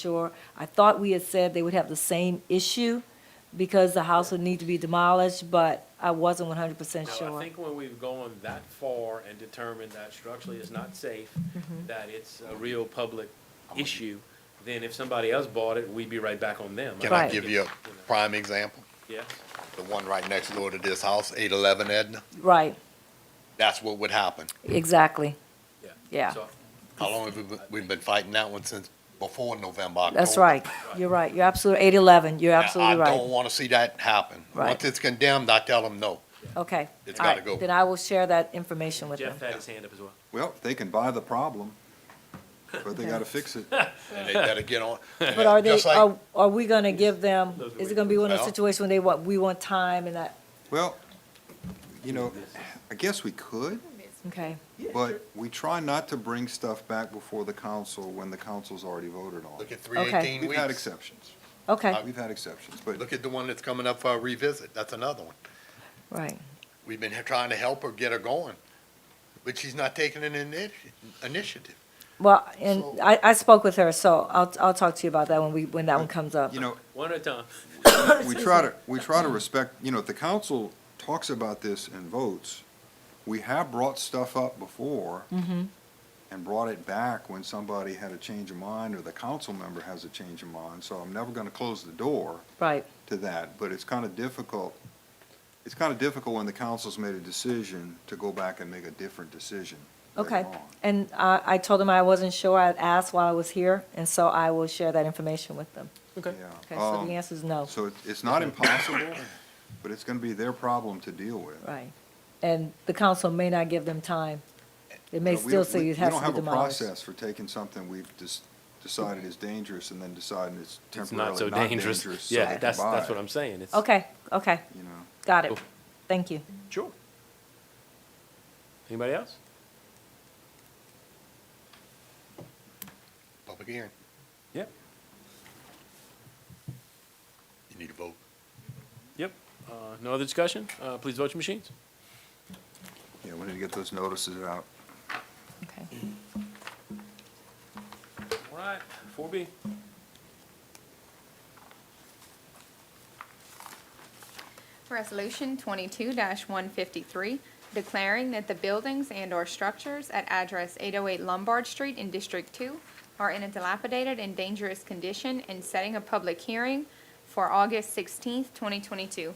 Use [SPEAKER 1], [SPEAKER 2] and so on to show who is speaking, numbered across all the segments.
[SPEAKER 1] sure. I thought we had said they would have the same issue because the house would need to be demolished, but I wasn't one hundred percent
[SPEAKER 2] Now, I
[SPEAKER 1] sure.
[SPEAKER 2] think when we've gone that far and determined that structurally it's not safe,
[SPEAKER 1] Mm-hmm.
[SPEAKER 2] that it's a real public issue, then if somebody else bought it, we'd be right back on them.
[SPEAKER 3] Can I
[SPEAKER 1] Right.
[SPEAKER 3] give you a prime example?
[SPEAKER 2] Yes,
[SPEAKER 3] The one right next door to this house, eight eleven Edna,
[SPEAKER 1] Right,
[SPEAKER 3] that's what would happen.
[SPEAKER 1] exactly.
[SPEAKER 2] yeah.
[SPEAKER 1] Yeah.
[SPEAKER 2] So,
[SPEAKER 3] How long have we, been- we've been fighting that one since before November, October?
[SPEAKER 1] That's right. You're right. You're absolutely, eight eleven, you're
[SPEAKER 3] Now,
[SPEAKER 1] absolutely
[SPEAKER 3] Oh. I don't
[SPEAKER 1] right.
[SPEAKER 3] wanna see that happen.
[SPEAKER 1] Right.
[SPEAKER 3] Once it's condemned, I tell them no.
[SPEAKER 1] Okay.
[SPEAKER 3] It's
[SPEAKER 1] All right.
[SPEAKER 3] gotta go.
[SPEAKER 1] Then I will share that information with them.
[SPEAKER 2] Jeff had his hand up as well.
[SPEAKER 4] Well, they can buy the problem, but they gotta fix it.
[SPEAKER 3] And they gotta get on.
[SPEAKER 1] But are they,
[SPEAKER 3] Just like-
[SPEAKER 1] are, are we gonna give them,
[SPEAKER 2] Those are
[SPEAKER 1] is
[SPEAKER 2] way
[SPEAKER 1] it gonna be one of those
[SPEAKER 3] Well-
[SPEAKER 1] situations when they want, we want time and that,
[SPEAKER 4] Well, you know, I guess we could,
[SPEAKER 1] okay?
[SPEAKER 4] but we try not to bring stuff back before the council when the council's already voted on.
[SPEAKER 3] Look at three eighteen
[SPEAKER 4] We've had
[SPEAKER 3] weeks.
[SPEAKER 4] exceptions.
[SPEAKER 1] Okay,
[SPEAKER 3] Uh,
[SPEAKER 4] We've had exceptions, but
[SPEAKER 3] Look at the one that's coming up for a revisit. That's another one.
[SPEAKER 1] right.
[SPEAKER 3] We've been trying to help her get her going, but she's not taking an initi- initiative.
[SPEAKER 1] Well, and
[SPEAKER 3] So-
[SPEAKER 1] I, I spoke with her, so I'll, I'll talk to you about that when we, when that one comes up.
[SPEAKER 4] you know,
[SPEAKER 2] One at a time.
[SPEAKER 4] we try to, we try to respect, you know, if the council talks about this and votes, we have brought stuff up before and brought it back when somebody had a change of mind or the council member has a change of mind, so I'm never gonna close the door
[SPEAKER 1] Right,
[SPEAKER 4] to that, but it's kind of difficult. It's kind of difficult when the council's made a decision to go back and make a different decision. later
[SPEAKER 1] okay.
[SPEAKER 4] on.
[SPEAKER 1] And I, I told them I wasn't sure. I'd asked while I was here, and so I will share that information with them.
[SPEAKER 2] Okay.
[SPEAKER 1] Okay,
[SPEAKER 4] Yeah.
[SPEAKER 1] so the
[SPEAKER 4] Um,
[SPEAKER 1] answer is no,
[SPEAKER 4] So it- it's not impossible, but it's going to be their problem to deal with.
[SPEAKER 1] right. And the council may not give them time. It
[SPEAKER 4] You
[SPEAKER 1] may
[SPEAKER 4] know, we
[SPEAKER 1] still
[SPEAKER 4] don't- we-
[SPEAKER 1] say it has to be
[SPEAKER 4] We don't have a
[SPEAKER 1] demolished.
[SPEAKER 4] process for taking something we've just decided is dangerous and then deciding it's
[SPEAKER 2] It's not
[SPEAKER 4] temporarily
[SPEAKER 2] so
[SPEAKER 4] not dangerous.
[SPEAKER 2] dangerous. Yeah,
[SPEAKER 4] they can
[SPEAKER 2] that's,
[SPEAKER 4] buy
[SPEAKER 2] that's
[SPEAKER 4] it,
[SPEAKER 2] what I'm saying. It's-
[SPEAKER 1] Okay, okay,
[SPEAKER 4] You know,
[SPEAKER 1] got it.
[SPEAKER 2] Cool.
[SPEAKER 1] Thank you.
[SPEAKER 4] Mm-hmm.
[SPEAKER 2] Sure. Anybody else?
[SPEAKER 3] Public hearing.
[SPEAKER 2] Yep.
[SPEAKER 3] You need to vote.
[SPEAKER 2] Yep. Uh, no other discussion? Uh, please vote your machines.
[SPEAKER 4] yeah, we need to get those notices out.
[SPEAKER 1] Okay.
[SPEAKER 2] All right, four B.
[SPEAKER 5] Resolution twenty-two one fifty-three, declaring that the buildings and/or structures at address eight oh eight Lombard Street in District Two are in a dilapidated and dangerous condition and setting a public hearing for August sixteenth, twenty twenty-two.
[SPEAKER 2] Do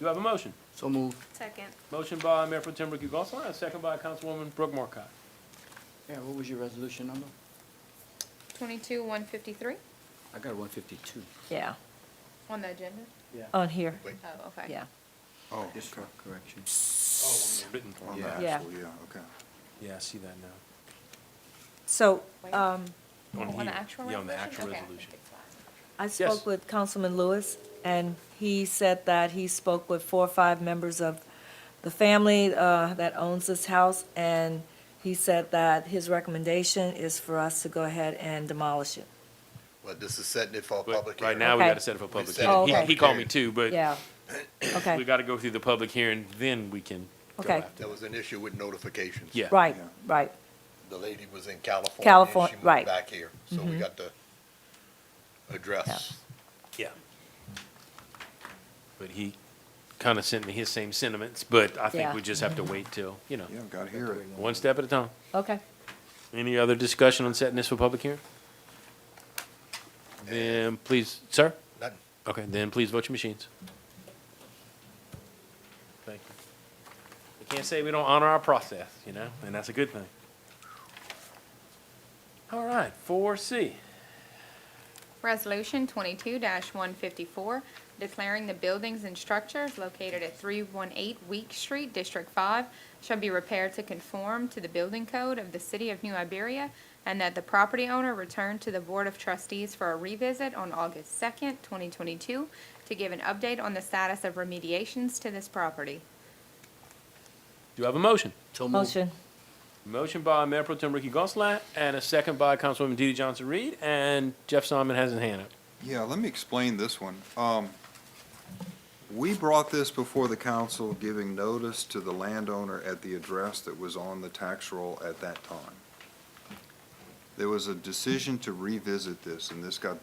[SPEAKER 2] you have a motion?
[SPEAKER 6] So moved.
[SPEAKER 5] Second.
[SPEAKER 2] Motion by Mayor Pro Tem Ricky Gonsalas, second by Councilwoman Brooke Markcott.
[SPEAKER 6] Yeah, what was your resolution number?
[SPEAKER 5] Twenty-two one fifty-three
[SPEAKER 6] I got one fifty-two.
[SPEAKER 1] Yeah,
[SPEAKER 5] on the agenda?
[SPEAKER 1] on here,
[SPEAKER 5] Oh, okay.
[SPEAKER 1] yeah.
[SPEAKER 4] Oh,
[SPEAKER 6] Yes, sir. Correction.
[SPEAKER 2] Written.
[SPEAKER 4] on the
[SPEAKER 6] Yeah.
[SPEAKER 1] Yeah.
[SPEAKER 4] actual, yeah, okay.
[SPEAKER 2] Oh, Yeah, I see that now.
[SPEAKER 1] So,
[SPEAKER 5] Wait.
[SPEAKER 1] um,
[SPEAKER 5] On
[SPEAKER 2] here.
[SPEAKER 5] the actual resolution?
[SPEAKER 2] Yeah, on the actual
[SPEAKER 5] Okay.
[SPEAKER 2] resolution.
[SPEAKER 1] I
[SPEAKER 2] Yes.
[SPEAKER 1] spoke with Councilman Lewis, and he said that he spoke with four or five members of the family uh, that owns this house, and he said that his recommendation is for us to go ahead and demolish it.
[SPEAKER 3] Well, this is setting it for a public
[SPEAKER 2] But
[SPEAKER 3] hearing.
[SPEAKER 2] right now, we
[SPEAKER 1] Okay.
[SPEAKER 2] gotta set it for public
[SPEAKER 3] set it for
[SPEAKER 2] hearing. He, he
[SPEAKER 1] public
[SPEAKER 2] called me
[SPEAKER 3] hearing.
[SPEAKER 2] too, but
[SPEAKER 1] Yeah,
[SPEAKER 2] we
[SPEAKER 1] okay,
[SPEAKER 2] gotta go through the public hearing, then we can go
[SPEAKER 1] Okay.
[SPEAKER 2] after.
[SPEAKER 3] There was an issue with notifications.
[SPEAKER 2] Yeah.
[SPEAKER 1] right,
[SPEAKER 4] Yeah.
[SPEAKER 1] right,
[SPEAKER 3] The lady was in California. and
[SPEAKER 1] Californ-
[SPEAKER 3] She
[SPEAKER 1] right. Mm-hmm.
[SPEAKER 3] moved back here, so we got to address.
[SPEAKER 2] Yeah. But he kinda sent me his same sentiments, but I think
[SPEAKER 1] Yeah.
[SPEAKER 2] we just have to wait till, you know,
[SPEAKER 4] Yeah, got to hear it.
[SPEAKER 2] one step at a time.
[SPEAKER 1] okay.
[SPEAKER 2] Any other discussion on setting this for public hearing? Then please, sir?
[SPEAKER 3] Nothing.
[SPEAKER 2] Okay, then please vote your machines. Thank you. We can't say we don't honor our process, you know, and that's a good thing. All right, four C.
[SPEAKER 5] Resolution twenty-two one fifty-four, declaring the buildings and structures located at three one eight Week Street, District Five, shall be repaired to conform to the building code of the city of New Iberia, and that the property owner return to the Board of Trustees for a revisit on August second, twenty twenty-two, to give an update on the status of remediations to this property.
[SPEAKER 2] Do you have a motion?
[SPEAKER 6] So moved.
[SPEAKER 1] Motion,
[SPEAKER 2] Motion by Mayor Pro Tem Ricky Gonsalas and a second by Councilwoman DeeDee Johnson-Reed, and Jeff Simon has his hand up.
[SPEAKER 4] Yeah, let me explain this one. Um, We brought this before the council, giving notice to the landowner at the address that was on the tax roll at that time. there was a decision to revisit this, and this got